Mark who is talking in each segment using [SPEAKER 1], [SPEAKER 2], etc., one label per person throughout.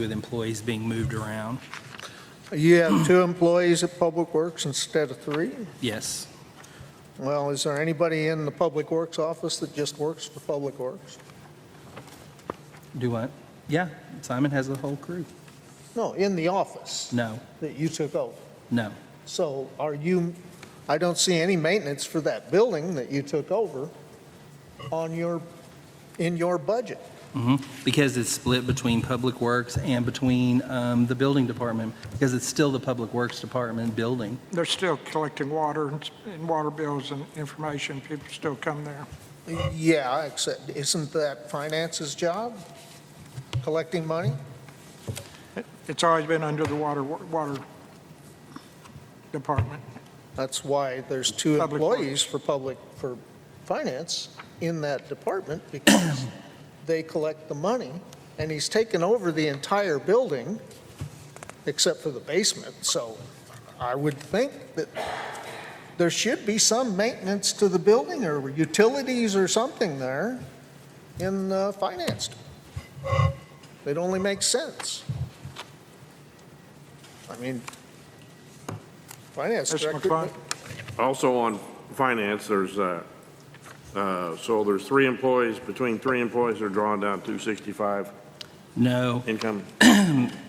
[SPEAKER 1] with employees being moved around.
[SPEAKER 2] You have two employees at Public Works instead of three?
[SPEAKER 1] Yes,
[SPEAKER 2] Well, is there anybody in the Public Works office that just works for Public Works?
[SPEAKER 1] do what? Yeah, Simon has a whole crew.
[SPEAKER 2] No, in the office
[SPEAKER 1] No,
[SPEAKER 2] that you took over.
[SPEAKER 1] no,
[SPEAKER 2] So are you, I don't see any maintenance for that building that you took over on your, in your budget.
[SPEAKER 1] because it's split between Public Works and between um, the Building Department, because it's still the Public Works Department building.
[SPEAKER 3] They're still collecting water and- and water bills and information. People still come there.
[SPEAKER 2] Yeah, except, isn't that finance's job? Collecting money?
[SPEAKER 3] It- It's always been under the water, water department.
[SPEAKER 2] That's why there's two
[SPEAKER 3] Public Works.
[SPEAKER 2] employees for public, for finance in that department because they collect the money and he's taken over the entire building except for the basement. So I would think that there should be some maintenance to the building or utilities or something there in uh, finance. It only makes sense. I mean, finance
[SPEAKER 3] Mr.
[SPEAKER 2] director.
[SPEAKER 3] McClung,
[SPEAKER 4] Also on finance, there's, uh, uh, so there's three employees, between three employees, they're drawing down 265
[SPEAKER 1] No,
[SPEAKER 4] income.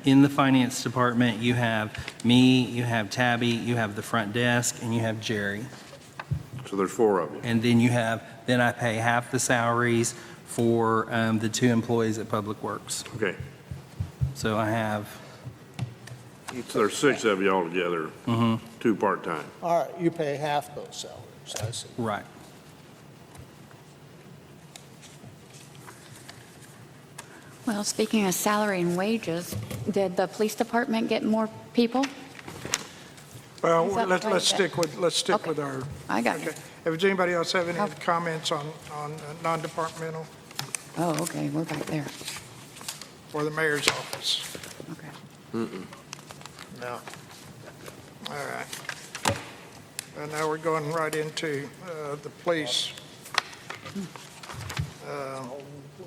[SPEAKER 1] in the Finance Department, you have me, you have Tabby, you have the front desk, and you have Jerry.
[SPEAKER 4] So there's four of you.
[SPEAKER 1] And then you have, then I pay half the salaries for um, the two employees at Public Works.
[SPEAKER 4] Okay.
[SPEAKER 1] So I have,
[SPEAKER 4] So there's six of you altogether,
[SPEAKER 1] mhm,
[SPEAKER 4] two part-time.
[SPEAKER 2] All right, you pay half those salaries, I see.
[SPEAKER 1] right.
[SPEAKER 5] Well, speaking of salary and wages, did the police department get more people?
[SPEAKER 3] well,
[SPEAKER 5] He's up
[SPEAKER 3] let's,
[SPEAKER 5] right
[SPEAKER 3] let's
[SPEAKER 5] there.
[SPEAKER 3] stick with, let's stick
[SPEAKER 5] Okay.
[SPEAKER 3] with our,
[SPEAKER 5] I got
[SPEAKER 3] okay.
[SPEAKER 5] you.
[SPEAKER 3] If does anybody else have any
[SPEAKER 5] Okay.
[SPEAKER 3] comments on, on uh, non-departmental
[SPEAKER 5] Oh, okay, we're back there.
[SPEAKER 3] or the mayor's office?
[SPEAKER 5] Okay.
[SPEAKER 2] No.
[SPEAKER 3] All right. And now we're going right into uh, the police. Uh,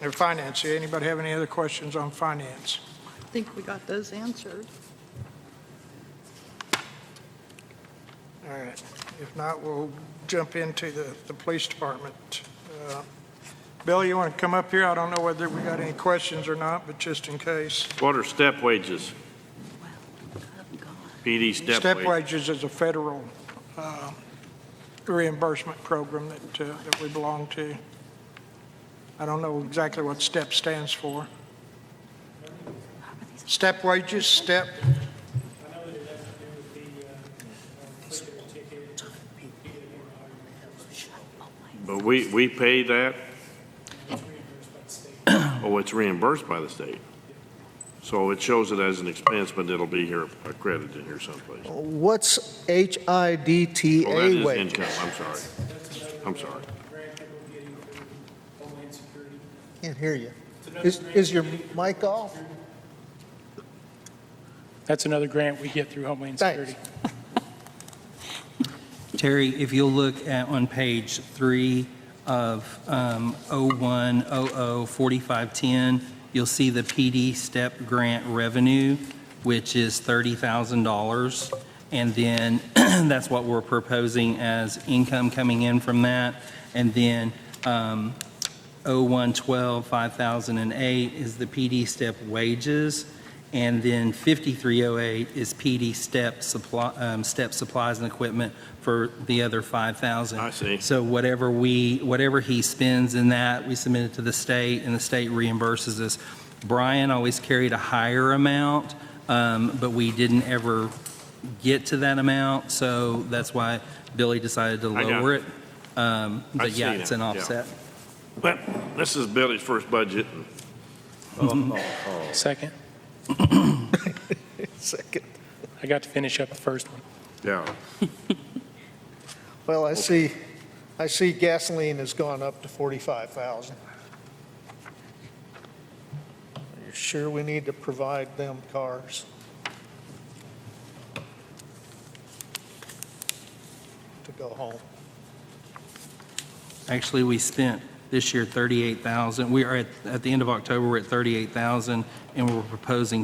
[SPEAKER 3] Their finance. Anybody have any other questions on finance?
[SPEAKER 6] I think we got those answered.
[SPEAKER 3] All right. If not, we'll jump into the, the police department. Uh, Bill, you want to come up here? I don't know whether we got any questions or not, but just in case.
[SPEAKER 4] What are step wages? PD step
[SPEAKER 3] Step
[SPEAKER 4] wage.
[SPEAKER 3] wages is a federal uh, reimbursement program that, uh, that we belong to. I don't know exactly what STEP stands for. Step wages, STEP,
[SPEAKER 7] I know that it has to do with the, uh, clear ticket, you get more hours.
[SPEAKER 4] But we, we pay that,
[SPEAKER 7] It's reimbursed
[SPEAKER 4] oh, it's reimbursed by
[SPEAKER 7] by the state.
[SPEAKER 4] the state. So it shows it as an expense, but it'll be here accredited here someplace.
[SPEAKER 2] What's
[SPEAKER 4] Oh, that
[SPEAKER 2] HIDTA
[SPEAKER 4] is
[SPEAKER 2] wage?
[SPEAKER 4] income, I'm sorry. I'm sorry.
[SPEAKER 7] Grant that we're getting through Homeland Security.
[SPEAKER 2] Can't hear you. Is, is your mic off?
[SPEAKER 7] That's another grant we get through Homeland
[SPEAKER 2] Thanks.
[SPEAKER 7] Security.
[SPEAKER 1] Terry, if you'll look at, on page three of um, 01004510, you'll see the PD STEP grant revenue, which is $30,000. And then that's what we're proposing as income coming in from that. And then um, 0112, 5008 is the PD STEP wages. And then 5308 is PD STEP supply, um, STEP supplies and equipment for the other 5,000.
[SPEAKER 4] I see.
[SPEAKER 1] So whatever we, whatever he spends in that, we submit it to the state, and the state reimburses us. Brian always carried a higher amount, um, but we didn't ever get to that amount, so that's why Billy decided to
[SPEAKER 4] I got
[SPEAKER 1] lower it. Um, But
[SPEAKER 4] I've
[SPEAKER 1] yeah,
[SPEAKER 4] seen
[SPEAKER 1] it's an
[SPEAKER 4] it, yeah.
[SPEAKER 1] offset.
[SPEAKER 4] But this is Billy's first budget, and
[SPEAKER 7] Second,
[SPEAKER 2] Second.
[SPEAKER 7] I got to finish up the first one.
[SPEAKER 4] yeah,
[SPEAKER 2] Well, I see, I see gasoline has gone up to 45,000. Are you sure we need to provide them cars? To go home.
[SPEAKER 1] Actually, we spent this year 38,000. We are at, at the end of October, we're at 38,000, and we're proposing